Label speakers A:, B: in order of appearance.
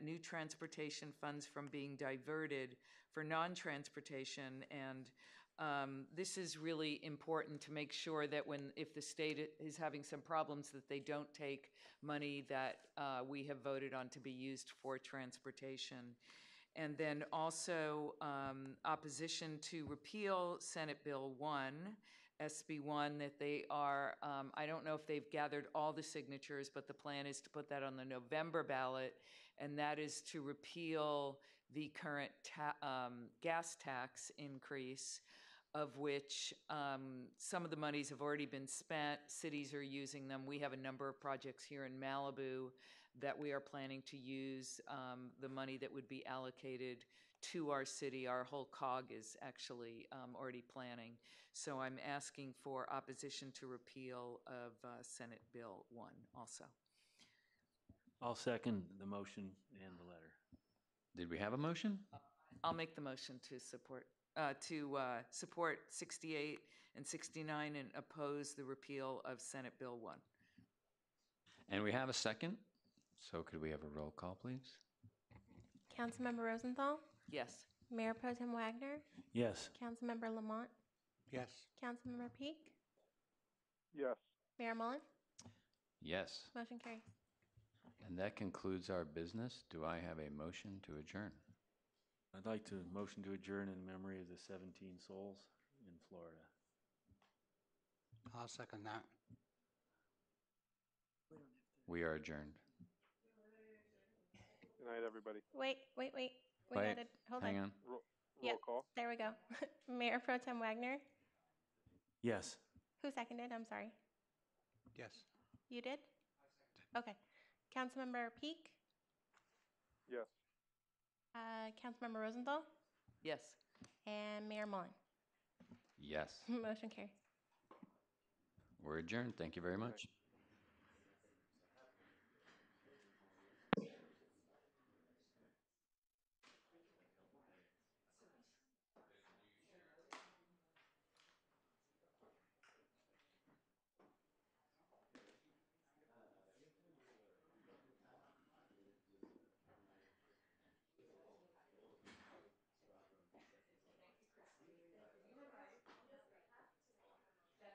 A: new transportation funds from being diverted for non-transportation. And um, this is really important to make sure that when, if the state i- is having some problems, that they don't take money that uh, we have voted on to be used for transportation. And then also um, opposition to repeal Senate Bill 1, SB 1, that they are, um, I don't know if they've gathered all the signatures, but the plan is to put that on the November ballot, and that is to repeal the current ta- um, gas tax increase, of which um, some of the monies have already been spent. Cities are using them. We have a number of projects here in Malibu that we are planning to use um, the money that would be allocated to our city. Our whole cog is actually um, already planning. So I'm asking for opposition to repeal of uh, Senate Bill 1 also.
B: I'll second the motion and the letter.
C: Did we have a motion?
A: I'll make the motion to support, uh, to uh, support 68 and 69 and oppose the repeal of Senate Bill 1.
C: And we have a second. So could we have a roll call, please?
D: Councilmember Rosenthal,
A: Yes.
D: Mayor Pro Tem Wagner,
B: Yes.
D: Councilmember Lamont,
E: Yes.
D: Councilmember Peak,
F: yes.
D: Mayor Mullen,
C: Yes.
D: motion carries.
C: And that concludes our business. Do I have a motion to adjourn?
B: I'd like to motion to adjourn in memory of the 17 souls in Florida.
E: I'll second that.
C: We are adjourned.
F: Good night, everybody.
D: Wait, wait, wait. We
C: Wait,
D: gotta, hold
C: Hang
D: on.
C: on.
F: Roll,
D: Yep,
F: roll call.
D: There we go. Mayor Pro Tem Wagner,
B: Yes.
D: who seconded? I'm sorry.
E: Yes.
D: You did? Okay. Councilmember Peak,
F: Yes.
D: uh, Councilmember Rosenthal,
A: Yes.
D: and Mayor Mullen.
C: Yes,
D: Motion carries.
C: we're adjourned. Thank you very much.